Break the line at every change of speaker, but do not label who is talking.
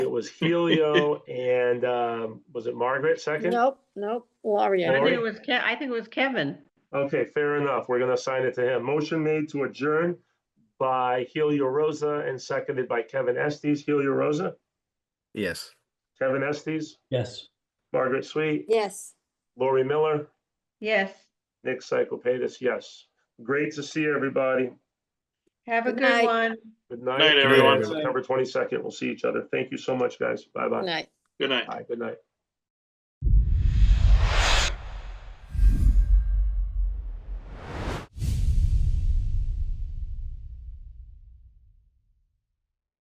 was Helio and, um, was it Margaret second?
Nope, nope,
I
Gloria.
think
Lori?
it was Ke, I think it was Kevin.
Okay, fair enough. We're gonna assign it to him. Motion made to adjourn by Helio Rosa and seconded by Kevin Estes. Helio Rosa,
Yes.
Kevin Estes,
Yes.
Margaret Sweet,
Yes.
Lori Miller,
Yes.
Nick Cyclepatis, yes. Great to see everybody.
Have a
Good
good
night.
one.
Good night.
Night, everyone.
September twenty-second, we'll see each other. Thank you so much, guys. Bye-bye.
Night.
Good night.
Bye, good night.